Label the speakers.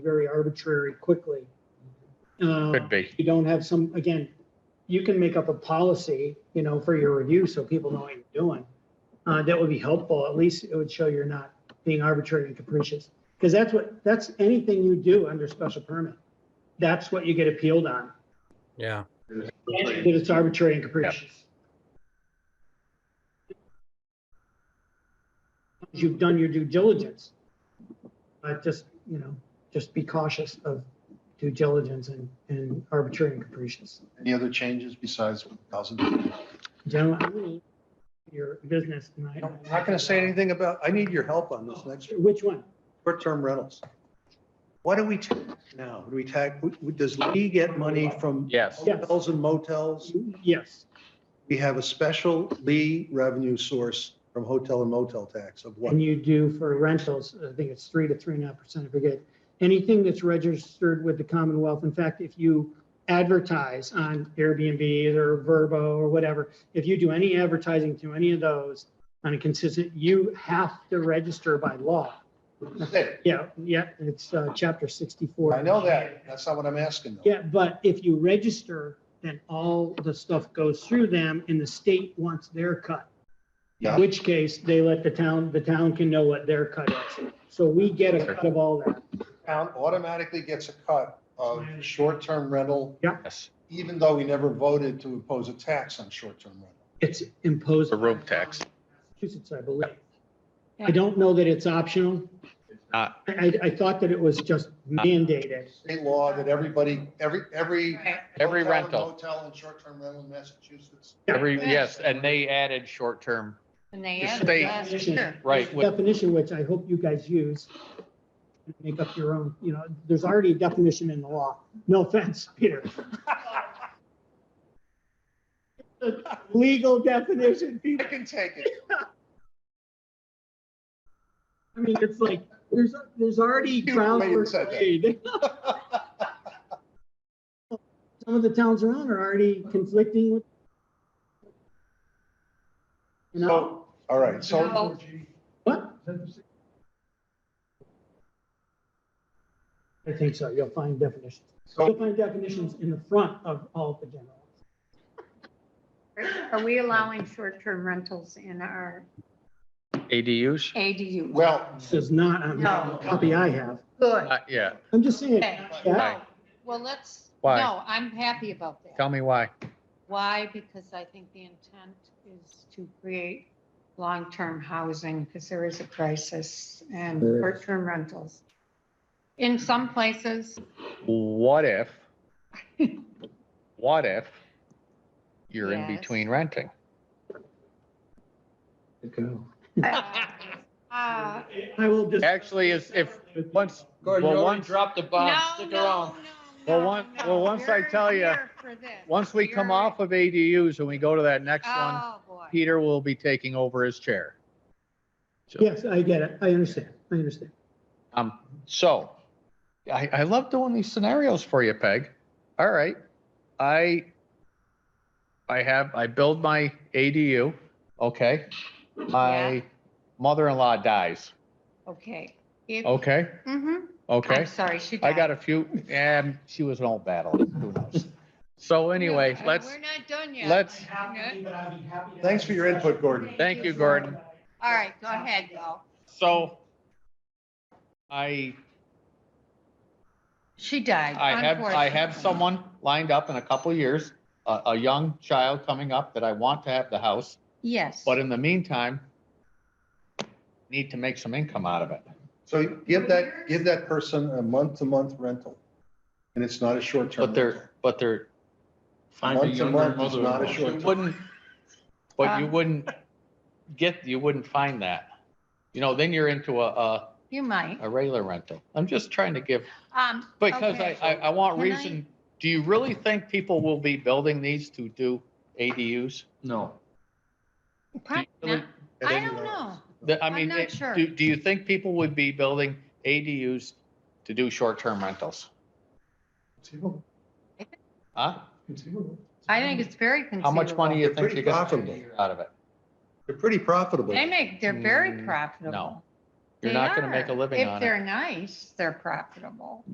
Speaker 1: very arbitrary quickly. Uh,
Speaker 2: Could be.
Speaker 1: You don't have some, again, you can make up a policy, you know, for your review so people know what you're doing. Uh, That would be helpful. At least it would show you're not being arbitrary and capricious. Because that's what, that's anything you do under special permit. That's what you get appealed on,
Speaker 3: Yeah,
Speaker 1: that it's arbitrary and capricious. You've done your due diligence. But just, you know, just be cautious of due diligence and, and arbitrary and capricious.
Speaker 4: Any other changes besides what doesn't?
Speaker 1: Gentlemen, I will- your business tonight.
Speaker 4: I'm not going to say anything about, I need your help on this next
Speaker 1: Which one?
Speaker 4: short-term rentals. What do we tax now? Do we tax, does Lee get money from
Speaker 2: Yes.
Speaker 1: Yes.
Speaker 4: hotels and motels?
Speaker 1: Yes,
Speaker 4: We have a special Lee revenue source from hotel and motel tax of what?
Speaker 1: and you do for rentals, I think it's three to three and a half percent, I forget. Anything that's registered with the Commonwealth, in fact, if you advertise on Airbnb or Verbo or whatever, if you do any advertising to any of those on a consistent, you have to register by law. Yeah, yeah, it's uh, chapter 64.
Speaker 4: I know that. That's not what I'm asking. though.
Speaker 1: Yeah, but if you register, then all the stuff goes through them and the state wants their cut. In
Speaker 4: Yeah.
Speaker 1: which case, they let the town, the town can know what their cut is. So we get a cut of all that.
Speaker 4: Town automatically gets a cut of short-term rental,
Speaker 2: Yes.
Speaker 4: even though we never voted to impose a tax on short-term rental.
Speaker 1: It's imposed.
Speaker 2: A road tax.
Speaker 1: Massachusetts, I believe. I don't know that it's optional. I,
Speaker 2: not.
Speaker 1: I I thought that it was just mandated.
Speaker 4: State law that everybody, every, every
Speaker 2: Every
Speaker 4: Hotel and
Speaker 2: rental,
Speaker 4: Motel and short-term rental in Massachusetts.
Speaker 2: every, yes, and they added short-term,
Speaker 5: And they
Speaker 2: The
Speaker 5: added
Speaker 2: state-
Speaker 5: last year.
Speaker 2: right, with-
Speaker 1: Definition, which I hope you guys use. Make up your own, you know, there's already a definition in the law. No offense, Peter. Legal definition,
Speaker 4: I
Speaker 1: Peter.
Speaker 4: can take it.
Speaker 1: I mean, it's like, there's, there's already ground for
Speaker 4: You may have said that.
Speaker 1: trade. Some of the towns around are already conflicting with. You know,
Speaker 4: So, all right, so
Speaker 5: No.
Speaker 1: what? I think so. You'll find definitions. You'll
Speaker 4: So-
Speaker 1: find definitions in the front of all of the general.
Speaker 5: Are we allowing short-term rentals in our
Speaker 2: ADUs.
Speaker 5: ADU?
Speaker 4: well,
Speaker 1: This is not on the
Speaker 5: No.
Speaker 1: copy I have.
Speaker 5: Good.
Speaker 2: Uh, Yeah,
Speaker 1: I'm just saying.
Speaker 5: Okay.
Speaker 1: yeah,
Speaker 2: Why?
Speaker 5: Well, let's,
Speaker 2: Why?
Speaker 5: no, I'm happy about that.
Speaker 2: tell me why.
Speaker 5: Why? Because I think the intent is to create long-term housing because there is a crisis and
Speaker 4: There is.
Speaker 5: short-term rentals. In some places,
Speaker 2: What if? What if you're in
Speaker 5: Yes.
Speaker 2: between renting?
Speaker 5: uh, uh,
Speaker 1: I will just.
Speaker 2: Actually, is if, once,
Speaker 3: Gordon, you
Speaker 2: well,
Speaker 3: already
Speaker 2: once,
Speaker 3: dropped the
Speaker 5: no,
Speaker 3: bomb.
Speaker 5: no,
Speaker 3: Stick
Speaker 5: no.
Speaker 3: around.
Speaker 2: Well,
Speaker 5: no,
Speaker 2: one-
Speaker 5: no.
Speaker 2: well, once I
Speaker 5: You're
Speaker 2: tell ya,
Speaker 5: here for this.
Speaker 2: once we come
Speaker 5: You're-
Speaker 2: off of ADUs and we go to that next one,
Speaker 5: Oh, boy.
Speaker 2: Peter will be taking over his chair.
Speaker 1: Yes, I get it. I understand. I understand.
Speaker 2: Um, so I, I love doing these scenarios for you, Peg. All right. I, I have, I build my ADU. Okay. My mother-in-law dies.
Speaker 5: Okay. If-
Speaker 2: Okay.
Speaker 5: Mhm.
Speaker 2: Okay.
Speaker 5: I'm sorry, she died.
Speaker 2: I got a few, and she was an old battle. Who knows? So anyway,
Speaker 5: Yeah,
Speaker 2: let's,
Speaker 5: We're not done yet.
Speaker 2: let's-
Speaker 5: Good.
Speaker 4: thanks for your input, Gordon.
Speaker 2: thank you, Gordon.
Speaker 5: All right, go ahead, Bill.
Speaker 2: So I,
Speaker 5: She died.
Speaker 2: I have, I have
Speaker 5: unfortunately.
Speaker 2: someone lined up in a couple of years, a, a young child coming up that I want to have the house.
Speaker 5: Yes.
Speaker 2: But in the meantime, need to make some income out of it.
Speaker 4: So give that, give that person a month-to-month rental. And it's not a short-term.
Speaker 2: But
Speaker 4: rental.
Speaker 2: they're, but they're,
Speaker 6: Find a
Speaker 4: Once a
Speaker 6: younger
Speaker 4: month is not
Speaker 6: mother.
Speaker 4: a short-
Speaker 2: you wouldn't, but
Speaker 5: Um,
Speaker 2: you wouldn't get, you wouldn't find that. You know, then you're into a, a,
Speaker 5: You might.
Speaker 2: a regular rental. I'm just trying to give,
Speaker 5: Um,
Speaker 2: because I, I, I want
Speaker 5: Can I-
Speaker 2: reason. Do you really think people will be building these to do ADUs?
Speaker 6: No.
Speaker 5: probably
Speaker 2: really-
Speaker 5: not.
Speaker 4: At
Speaker 5: I
Speaker 4: any
Speaker 5: don't
Speaker 4: rate.
Speaker 5: know.
Speaker 2: The- I
Speaker 5: I'm
Speaker 2: mean,
Speaker 5: not
Speaker 2: it-
Speaker 5: sure.
Speaker 2: do, do you think people would be building ADUs to do short-term rentals? Huh?
Speaker 5: I think it's very conceivable.
Speaker 2: How much money you think
Speaker 4: Pretty
Speaker 2: you're gonna
Speaker 4: profitable.
Speaker 2: get out of it?
Speaker 4: They're pretty profitable.
Speaker 5: They make, they're very
Speaker 2: Mm,
Speaker 5: profitable.
Speaker 2: You're
Speaker 5: They
Speaker 2: not gonna make
Speaker 5: are.
Speaker 2: a living on it.
Speaker 5: If they're nice, they're profitable.